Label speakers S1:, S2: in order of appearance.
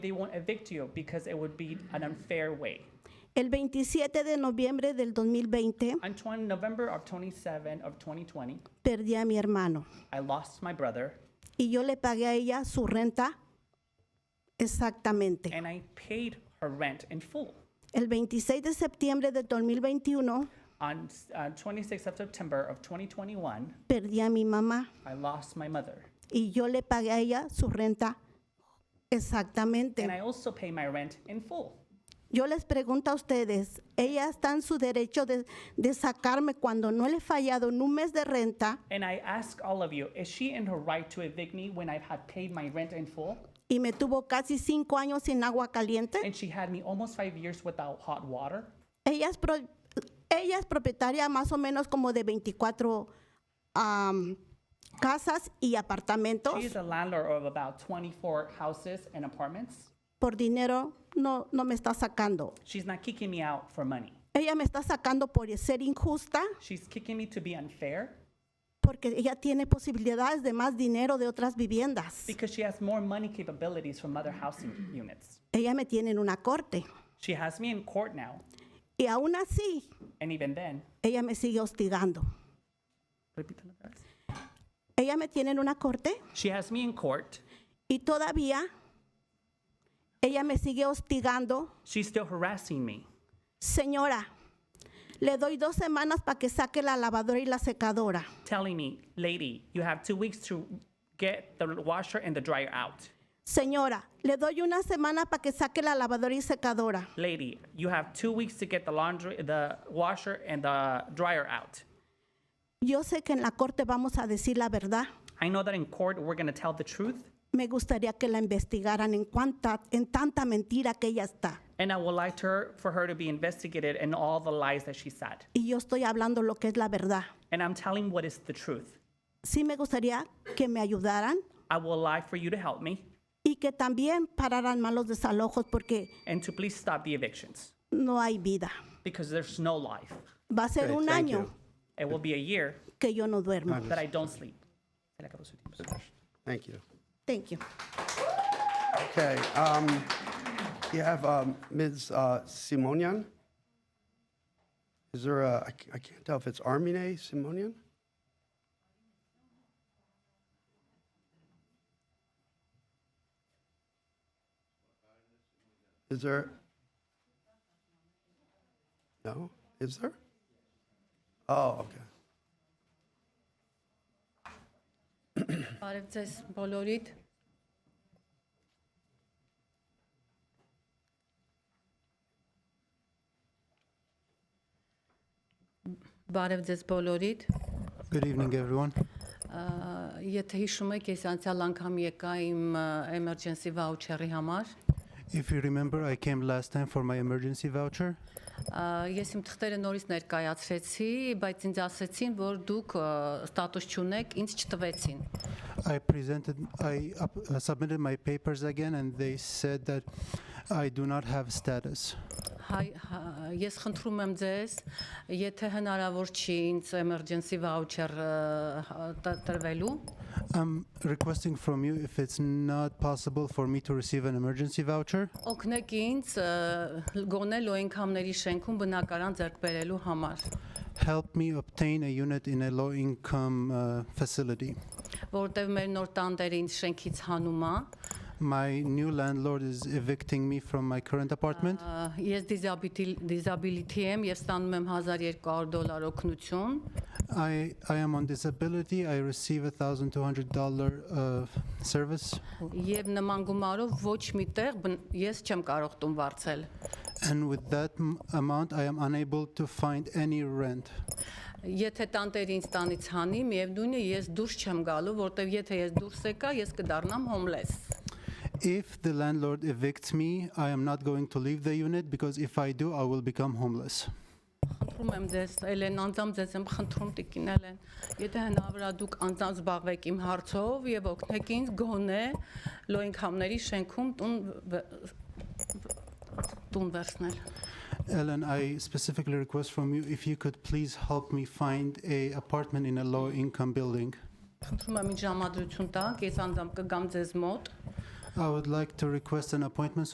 S1: they won't evict you because it would be an unfair way.
S2: El 27 de noviembre del 2020
S1: On 20, November of 27 of 2020,
S2: perdí a mi hermano
S1: I lost my brother
S2: y yo le pagué a ella su renta exactamente.
S1: and I paid her rent in full.
S2: El 26 de septiembre del 2021
S1: On uh, 26th of September of 2021,
S2: perdí a mi mamá
S1: I lost my mother
S2: y yo le pagué a ella su renta
S1: and
S2: exactamente.
S1: I also pay my rent in full.
S2: Yo les pregunto a ustedes, ella está en su derecho de, de sacarme cuando no le he fallado en un mes de renta
S1: And I ask all of you, is she in her right to evict me when I had paid my rent in full?
S2: y me tuvo casi cinco años sin agua caliente.
S1: And she had me almost five years without hot water.
S2: Ella es, pro- ella es propietaria más o menos como de 24 am, casas y apartamentos.
S1: She is a landlord of about 24 houses and apartments.
S2: Por dinero no, no me está sacando.
S1: She's not kicking me out for money.
S2: Ella me está sacando por ser injusta
S1: She's kicking me to be unfair
S2: porque ella tiene posibilidades de más dinero de otras viviendas.
S1: because she has more money capabilities from other housing units.
S2: Ella me tiene en una corte
S1: She has me in court now,
S2: y aún así
S1: and even then,
S2: ella me sigue hostigando.
S1: repítelo otra vez.
S2: Ella me tiene en una corte
S1: she has me in court.
S2: y todavía ella me sigue hostigando.
S1: She's still harassing me.
S2: Señora, le doy dos semanas para que saque la lavadora y la secadora.
S1: telling me, lady, you have two weeks to get the washer and the dryer out.
S2: Señora, le doy una semana para que saque la lavadora y secadora.
S1: Lady, you have two weeks to get the laundry, the washer and the dryer out.
S2: Yo sé que en la corte vamos a decir la verdad.
S1: I know that in court we're gonna tell the truth,
S2: Me gustaría que la investigaran en, cuanta, en tanta mentira que ella está.
S1: and I would like to her, for her to be investigated and all the lies that she said.
S2: Y yo estoy hablando lo que es la verdad.
S1: And I'm telling what is the truth.
S2: Sí me gustaría que me ayudaran
S1: I would like for you to help me
S2: y que también pararan malos desalojos porque
S1: and to please stop the evictions
S2: no hay vida.
S1: because there's no life.
S2: Va a ser
S3: Great,
S2: un
S3: thank
S2: año
S3: you.
S1: It will be a year
S2: que yo no duermo.
S1: that I don't sleep.
S3: Thank you.
S2: Thank you.
S3: Okay, um, you have, um, Ms. uh, Simonian? Is there a, I c- I can't tell if it's Armine Simonian? Is there? No, is there? Oh, okay.
S4: Բարև ձեզ բոլորիդ։ Բարև ձեզ բոլորիդ։
S5: Good evening, everyone.
S4: Ա, Եթե հիշում եք, ես անցյալ անգամ եկա իմ ա, emergency voucher-ի համար։
S5: If you remember, I came last time for my emergency voucher.
S4: Ա, Ես իմ թղթերը նորից ներկայացրեցի, բայց ինձ ասացին, որ դուք ա, ստատուս չունեք, ինձ չտվեցին։
S5: I presented, I up, uh, submitted my papers again, and they said that I do not have status.
S4: Հայ հա- ես խնդրում եմ ձեզ, եթե հնարավոր չի ինձ emergency voucher ը, հա- տ- տրվելու,
S5: I'm requesting from you if it's not possible for me to receive an emergency voucher.
S4: օգնեք ինձ ը, գոնե լոյնքամների շենքում բնակարան ձեռք բերելու համար,
S5: Help me obtain a unit in a low-income uh, facility.
S4: որտեղ մեր նոր տանտերը ինձ շենքից հանում է։
S5: My new landlord is evicting me from my current apartment.
S4: Ա, Ես disability disability եմ եւ ստանում եմ 1200 դոլար օգնություն։
S5: I I am on disability. I receive a thousand two hundred dollar uh, service.
S4: Եվ նման գումարով ոչ միտեղ բն- ես չեմ կարող տուն վարձել։
S5: And with that m- amount, I am unable to find any rent.
S4: Եթե տանտերը ինձ տանից հանի, միևնույնն է ես դուրս չեմ գալու, որտեվ եթե ես դուրս եկա, ես կդառնամ հոմլես։
S5: If the landlord evicts me, I am not going to leave the unit because if I do, I will become homeless.
S4: Խնդրում եմ ձեզ, Էլեն, անձամ ձեզ եմ խնդրում տիկին Էլեն, եթե հնարավոր է դուք անձամ զբաղվեք իմ հարցով եւ օգնեք ինձ գոնե լոյնքամների շենքում տուն վ- վ- տուն վերցնել։
S5: Ellen, I specifically request from you if you could please help me find a apartment in a low income building.
S4: Խնդրում եմ ինձ ժամադրություն տաք, ես անձամ կգամ ձեզ մոտ։
S5: I would like to request an appointment